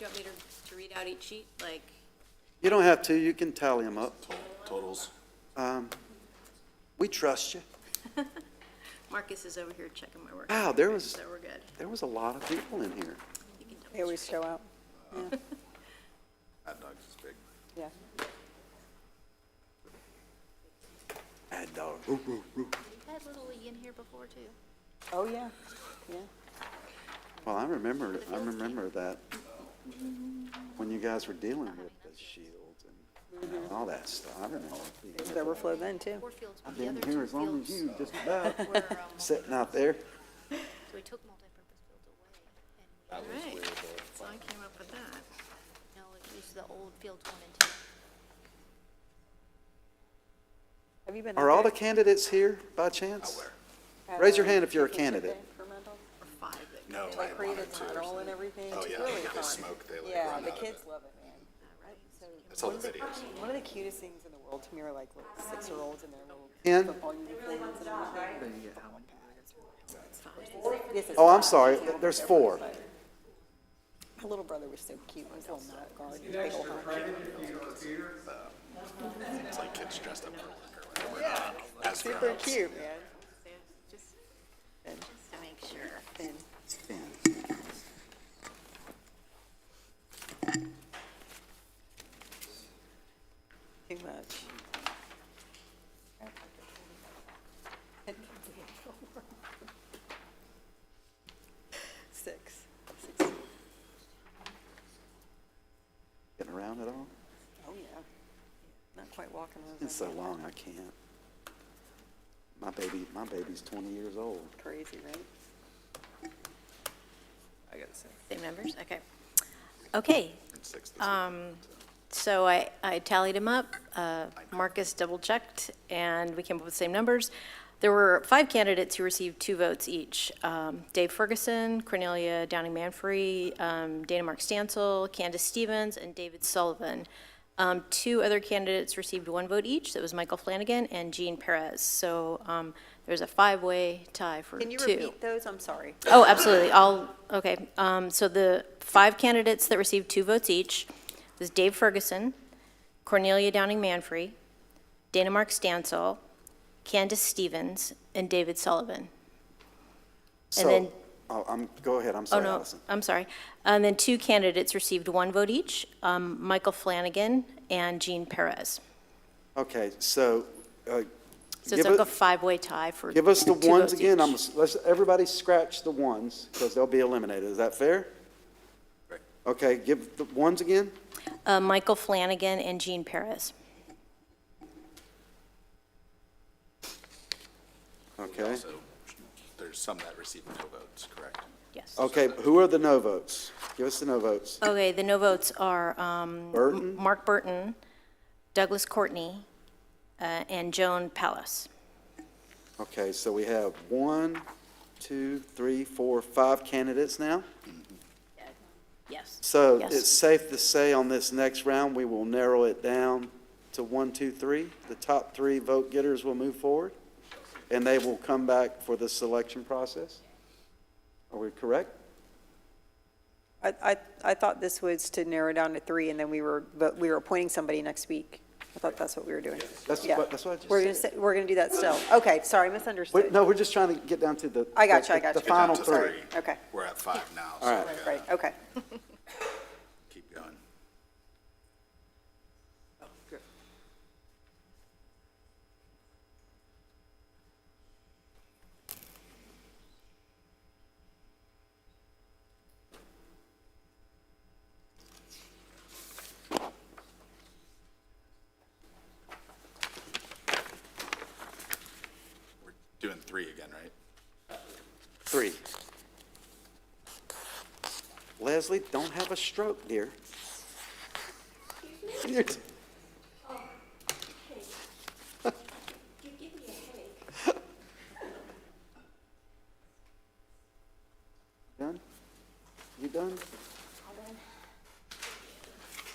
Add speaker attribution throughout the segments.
Speaker 1: you want me to, to read out each sheet, like?
Speaker 2: You don't have to, you can tally them up.
Speaker 3: Totals.
Speaker 2: Um, We trust you.
Speaker 1: Marcus is over here checking my work.
Speaker 2: Wow, there was-
Speaker 1: So we're good.
Speaker 2: There was a lot of people in here.
Speaker 1: You can double
Speaker 4: They always
Speaker 1: check.
Speaker 4: show up,
Speaker 3: Hot dogs is big.
Speaker 4: yeah.
Speaker 2: Mad dog. Roo, roo, roo.
Speaker 5: Had Little League in here before too.
Speaker 4: Oh, yeah, yeah.
Speaker 2: Well, I remember, I remember that when you guys were dealing with the shields and
Speaker 5: Mm-hmm.
Speaker 2: all that stuff. I remember. being
Speaker 4: There's
Speaker 2: there.
Speaker 4: overflow then, too.
Speaker 5: Four fields, but
Speaker 2: I've
Speaker 5: the
Speaker 2: been
Speaker 5: other two
Speaker 2: here as long as
Speaker 5: fields
Speaker 2: you, just about,
Speaker 5: were uh,
Speaker 2: sitting out
Speaker 5: multipurpose.
Speaker 2: there.
Speaker 5: So we took multipurpose fields away and we,
Speaker 1: All right, so I came up with that.
Speaker 5: no, it was the old fields one and two.
Speaker 4: Have you been?
Speaker 2: Are all the candidates here by chance? raise your hand if you're a candidate.
Speaker 1: Or five that
Speaker 3: No, Oh, I
Speaker 4: They
Speaker 3: had one
Speaker 4: create
Speaker 3: or
Speaker 4: a
Speaker 3: two or
Speaker 4: tunnel and
Speaker 3: something.
Speaker 4: everything.
Speaker 3: Oh,
Speaker 4: It's
Speaker 3: yeah,
Speaker 4: really
Speaker 3: they
Speaker 4: fun.
Speaker 3: smoke, they, like,
Speaker 4: Yeah,
Speaker 3: run
Speaker 4: the
Speaker 3: out of
Speaker 4: kids
Speaker 3: it.
Speaker 4: love it, man.
Speaker 3: That's all the videos.
Speaker 4: One of the cutest things in the world to me are like little six-year-olds and their little
Speaker 2: Ken?
Speaker 4: football uniforms and everything. This is-
Speaker 2: Oh, I'm sorry, there's four.
Speaker 4: My little brother was so cute, his little mouth guard, his big old honk.
Speaker 3: It's like kids dressed up for liquor or whatever. not As
Speaker 4: Super
Speaker 3: grown-ups.
Speaker 4: cute, man.
Speaker 1: Just just to make sure.
Speaker 4: And Too much. Six. Six.
Speaker 2: Getting around at all?
Speaker 4: Oh, yeah. Not quite walking those.
Speaker 2: It's so long, I can't. My baby, my baby's twenty years old.
Speaker 4: Crazy, right? I got six.
Speaker 1: Same numbers, okay. Okay,
Speaker 3: It's six this
Speaker 1: um, so I, I tallied them up, uh, Marcus double-checked, and we came up with the same numbers. There were five candidates who received two votes each. Um, Dave Ferguson, Cornelia Downing-Manfree, um, Dana Mark Stansel, Candace Stevens, and David Sullivan. Um, Two other candidates received one vote each, that was Michael Flanagan and Jean Perez. So um, there's a five-way tie for two.
Speaker 4: Can you repeat those? I'm sorry.
Speaker 1: Oh, absolutely. I'll, okay. Um, So the five candidates that received two votes each was Dave Ferguson, Cornelia Downing Manfree, Dana Mark Stansel, Candace Stevens, and David Sullivan. And
Speaker 2: So,
Speaker 1: then-
Speaker 2: oh, I'm, go ahead, I'm
Speaker 1: Oh,
Speaker 2: sorry,
Speaker 1: no,
Speaker 2: Allison.
Speaker 1: I'm sorry. And then two candidates received one vote each, um, Michael Flanagan and Jean Perez.
Speaker 2: Okay, so, uh,
Speaker 1: So it's
Speaker 2: Give
Speaker 1: like a
Speaker 2: it-
Speaker 1: five-way tie for
Speaker 2: give us the
Speaker 1: two
Speaker 2: ones
Speaker 1: votes
Speaker 2: again, I'm,
Speaker 1: each.
Speaker 2: s- let's, everybody scratch the ones, because they'll be eliminated, is that fair?
Speaker 3: Right.
Speaker 2: Okay, give the ones again?
Speaker 1: Uh, Michael Flanagan and Jean Perez.
Speaker 2: Okay,
Speaker 3: So there's some that received no votes, correct?
Speaker 1: Yes.
Speaker 2: okay, who are the no votes? Give us the no votes.
Speaker 1: Okay, the no votes are um,
Speaker 2: Burton?
Speaker 1: Mark Burton, Douglas Courtney, uh, and Joan Palace.
Speaker 2: Okay, so we have one, two, three, four, five candidates now?
Speaker 1: Yes.
Speaker 2: So
Speaker 1: Yes.
Speaker 2: it's safe to say on this next round, we will narrow it down to one, two, three. The top three vote getters will move forward, and they will come back for the selection process. Are we correct?
Speaker 4: I, I, I thought this was to narrow down to three, and then we were, but we were appointing somebody next week. I thought that's what we were doing.
Speaker 2: That's
Speaker 4: Yeah.
Speaker 2: what- that's what I just
Speaker 4: We're gonna,
Speaker 2: said.
Speaker 4: say- we're gonna do that still. Okay, sorry,
Speaker 2: Wait,
Speaker 4: misunderstood.
Speaker 2: no, we're just trying to get down to the.
Speaker 4: I got you, I
Speaker 2: the-
Speaker 4: got you.
Speaker 2: The final
Speaker 3: Get down to
Speaker 2: three.
Speaker 4: Okay.
Speaker 3: We're at five now, so
Speaker 2: All
Speaker 3: we
Speaker 4: Right,
Speaker 3: gotta
Speaker 4: right, okay.
Speaker 3: keep going. We're Doing three again, right?
Speaker 2: Three. Leslie, don't have a stroke, dear. You're t- Done? You done?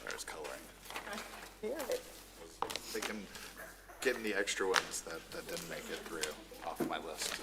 Speaker 3: There's coloring.
Speaker 4: Hear it.
Speaker 3: Thinking, getting the extra ones that, that didn't make it through off my list.